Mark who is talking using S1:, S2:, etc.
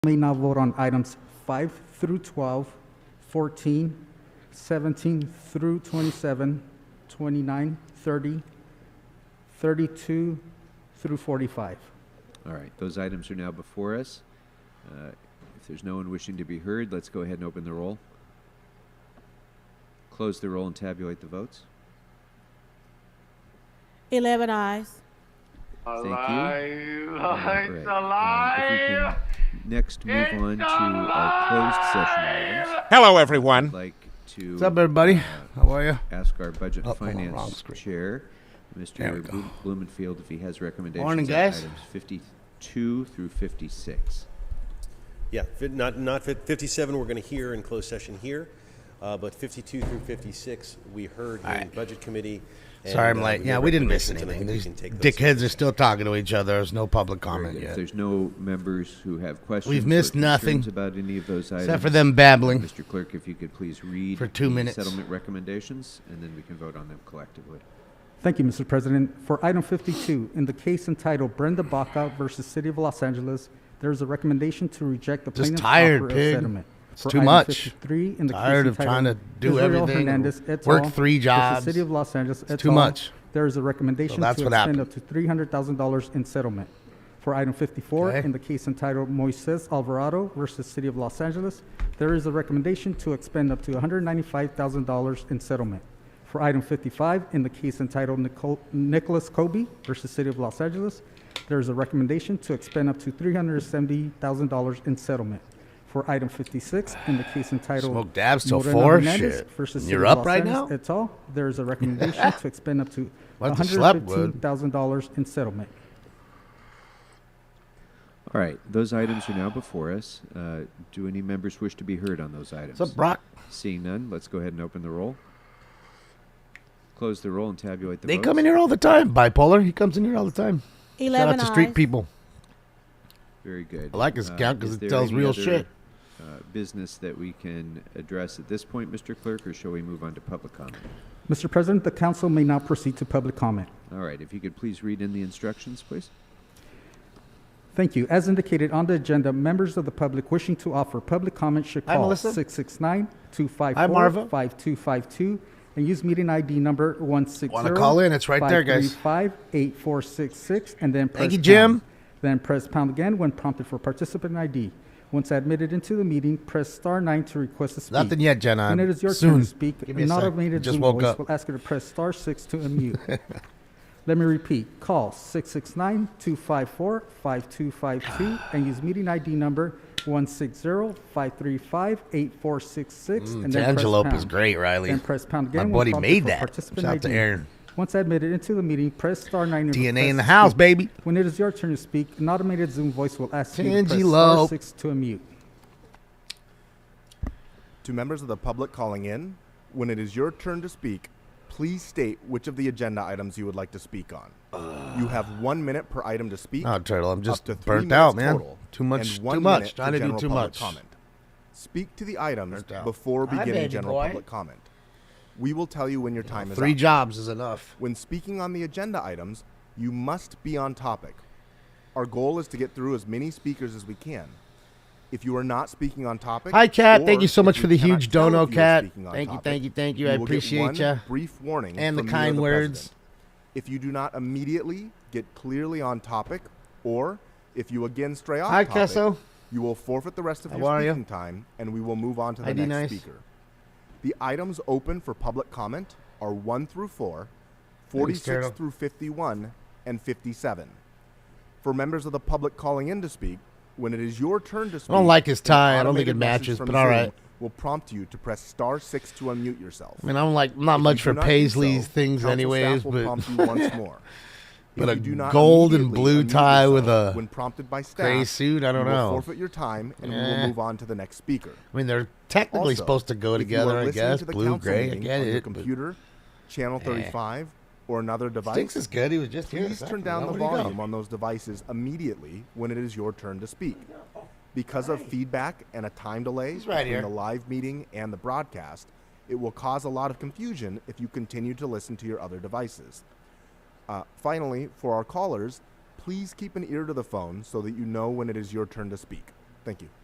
S1: may now vote on items 5 through 12, 14, 17 through 27, 29, 30, 32 through 45.
S2: All right, those items are now before us. Uh, If there's no one wishing to be heard, let's go ahead and open the roll. Close the roll and tabulate the votes.
S3: 11 eyes.
S2: Thank you.
S4: Alive,
S2: All
S4: Oh, it's
S2: right, um, if we
S4: alive.
S2: can Next, move
S4: It's
S2: on to our closed session items.
S5: Hello,
S2: I'd
S5: everyone.
S2: like to
S6: What's up, everybody? How are you?
S2: ask our Budget and
S6: Oh, hold on, wrong
S2: Finance
S6: screen.
S2: Chair,
S6: There we
S2: Mr.
S6: go.
S2: Blu- Blumenfield, if he has recommendations on
S6: Morning, guys.
S2: items 52 through 56.
S7: Yeah, fi- not, not fif- 57, we're going to hear in closed session here, uh, but 52 through 56, we heard in
S6: right.
S7: Budget Committee. and,
S6: Sorry, I'm
S7: uh,
S6: late.
S7: made
S6: Yeah, we didn't miss
S7: recommendations, and I
S6: anything.
S7: think we
S6: These
S7: can take those.
S6: dickheads are still talking to each other. There's no public comment
S2: If
S6: yet,
S2: there's no members who have questions or
S6: missed nothing,
S2: concerns about any of those items.
S6: except for them babbling.
S2: Mr. Clerk, if you could please read
S6: For two
S2: the
S6: minutes.
S2: settlement recommendations, and then we can vote on them collectively.
S1: Thank you, Mr. President. For item 52, in the case entitled Brenda Baca versus City of Los Angeles, there is a recommendation to reject the
S6: Just
S1: plaintiff's
S6: tired,
S1: offer of
S6: pig.
S1: settlement.
S6: It's
S1: For
S6: too
S1: item
S6: much.
S1: 53, in the case
S6: Tired of trying to
S1: entitled
S6: do
S1: Israel
S6: everything,
S1: Hernandez et
S6: work
S1: al.
S6: three
S1: versus
S6: jobs.
S1: City of Los Angeles et
S6: too
S1: al.
S6: much.
S1: There is a recommendation to
S6: that's what
S1: expend
S6: happened.
S1: up to $300,000 in settlement. For item 54,
S6: Okay.
S1: in the case entitled Moises Alvarado versus City of Los Angeles, there is a recommendation to expend up to $195,000 in settlement. For item 55, in the case entitled Nicole- Nicholas Kobe versus City of Los Angeles, there is a recommendation to expend up to $370,000 in settlement. For item 56, in the case entitled
S6: Smoke dabs till
S1: Moreno
S6: four?
S1: Hernandez
S6: Shit.
S1: versus
S6: You're
S1: City of
S6: up
S1: Los
S6: right
S1: Angeles
S6: now?
S1: et al., there is a recommendation to expend up to
S6: Went to slept, Wood.
S1: $115,000 in settlement.
S2: All right, those items are now before us. Uh, Do any members wish to be heard on those items?
S6: What's up, Brock?
S2: Seeing none, let's go ahead and open the roll. Close the roll and tabulate the
S6: They
S2: votes.
S6: come in here all the time. Bipolar, he comes in here all the time.
S3: 11
S6: Shout out to
S3: eyes.
S6: street people.
S2: Very good.
S6: I like his
S2: Uh,
S6: account 'cause
S2: is
S6: it
S2: there
S6: tells
S2: any
S6: real
S2: other,
S6: shit.
S2: uh, Business that we can address at this point, Mr. Clerk, or shall we move on to public comment?
S1: Mr. President, the council may now proceed to public comment.
S2: All right, if you could please read in the instructions, please.
S1: Thank you. As indicated on the agenda, members of the public wishing to offer public comment should
S6: Hi,
S1: call
S6: Melissa.
S1: 669-254-5252 and use meeting ID number 160.
S6: Wanna call in? It's right there, guys.
S1: 535-8466 and then press
S6: you, Jim.
S1: pound. Then press pound again when prompted for participant ID. Once admitted into the meeting, press star nine to request to speak.
S6: Nothing yet, Jen.
S1: When it
S6: I'm-
S1: is your
S6: soon.
S1: turn to speak,
S6: Give me a
S1: an
S6: sec.
S1: automated
S6: Just
S1: Zoom
S6: woke
S1: voice
S6: up.
S1: will ask you to press star six to unmute. Let me repeat. Call 669-254-5252 and use meeting ID number 160-535-8466 and then press
S6: Antelope is
S1: pound.
S6: Mm, great, Riley.
S1: Then press pound
S6: My
S1: again. when
S6: buddy
S1: prompted
S6: made
S1: for
S6: that.
S1: participant
S6: Shout out to
S1: ID.
S6: Aaron.
S1: Once admitted into the meeting, press star nine. and
S6: DNA
S1: request
S6: in the
S1: to
S6: house,
S1: speak.
S6: baby.
S1: When it is your turn to speak, an automated Zoom voice will ask you to press star
S6: Antelope.
S1: six to unmute.
S8: To members of the public calling in, when it is your turn to speak, please state which of the agenda items you would like to speak on. you have one minute per item to speak.
S6: Oh, Turtle, I'm just
S8: up to three
S6: burnt
S8: minutes
S6: out, man.
S8: total,
S6: Too much-
S8: and one
S6: too much.
S8: minute
S6: Trying to do
S8: general
S6: too
S8: public
S6: much.
S8: Comment. Speak to the items
S6: Burnt out.
S8: before
S6: Hi,
S8: beginning
S6: baby
S8: general
S6: boy.
S8: public comment. We will tell you when your time is
S6: Three
S8: up.
S6: jobs is enough.
S8: When speaking on the agenda items, you must be on topic. Our goal is to get through as many speakers as we can. If you are not speaking on topic,
S6: Hi, Cat.
S8: or
S6: Thank you so
S8: if
S6: much
S8: we
S6: for the
S8: cannot
S6: huge
S8: tell if
S6: dono,
S8: you are
S6: Cat.
S8: speaking on
S6: Thank you,
S8: topic,
S6: thank you, thank you. I
S8: will get
S6: appreciate
S8: one
S6: ya.
S8: Brief warning
S6: And the
S8: from me or
S6: kind words.
S8: president. If you do not immediately get clearly on topic, or if you again stray off
S6: Hi,
S8: topic,
S6: Kesso.
S8: you will forfeit the rest of
S6: How
S8: your
S6: are ya?
S8: speaking time, and we will move on to the
S6: ID
S8: next
S6: nice.
S8: speaker. The items open for public comment are 1 through 4,
S6: Thanks,
S8: 46
S6: Gerald.
S8: through 51, and 57. For members of the public calling in to speak, when it is your turn to speak,
S6: don't like his
S8: an
S6: tie. I don't think it
S8: automated message
S6: matches,
S8: from
S6: but all
S8: Zoom
S6: right.
S8: Will prompt you to press star six to unmute yourself.
S6: I mean, I'm like not
S8: If
S6: much
S8: you
S6: for
S8: do not do
S6: Paisley's
S8: so,
S6: things,
S8: council
S6: anyways.
S8: staff will
S6: But
S8: prompt you once more.
S6: but
S8: If
S6: a
S8: you do not
S6: gold and
S8: immediately
S6: blue
S8: unmute
S6: tie with
S8: yourself
S6: a
S8: when prompted by staff,
S6: gray suit, I don't
S8: you will
S6: know.
S8: forfeit your time, and we
S6: Eh.
S8: will move on to the next speaker.
S6: I mean, they're technically
S8: Also,
S6: supposed to go
S8: if you are
S6: together, I
S8: listening
S6: guess.
S8: to the
S6: Blue,
S8: council
S6: gray, I
S8: meeting
S6: get
S8: on your
S6: it. but Eh.
S8: computer, channel 35, or another device.
S6: Stinks is good. He was just here. a
S8: Please turn
S6: second
S8: down
S6: ago.
S8: the
S6: Where'd he go?
S8: volume on those devices immediately when it is your turn to speak. Because of feedback and a time delay
S6: He's right
S8: between
S6: here.
S8: the live meeting and the broadcast, it will cause a lot of confusion if you continue to listen to your other devices. Uh, finally, for our callers, please keep an ear to the phone so that you know when it is your turn to speak. Thank you.